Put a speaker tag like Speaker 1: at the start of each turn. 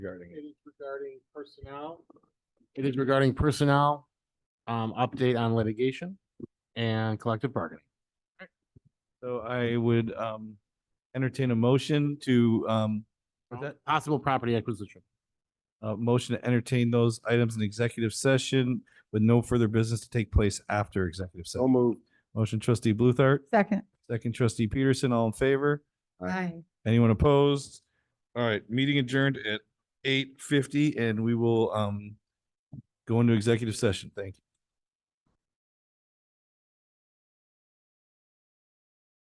Speaker 1: regarding it.
Speaker 2: It is regarding personnel.
Speaker 1: It is regarding personnel, um, update on litigation and collective bargaining.
Speaker 3: So I would um entertain a motion to um What's that?
Speaker 1: Possible property acquisition.
Speaker 3: a motion to entertain those items in executive session with no further business to take place after executive
Speaker 4: So
Speaker 3: session.
Speaker 4: moved.
Speaker 3: Motion trustee Bluthart,
Speaker 5: Second.
Speaker 3: second trustee Peterson, all in favor?
Speaker 4: Aye.
Speaker 3: Anyone opposed? All right, meeting adjourned at eight fifty and we will um go into executive session. Thank you.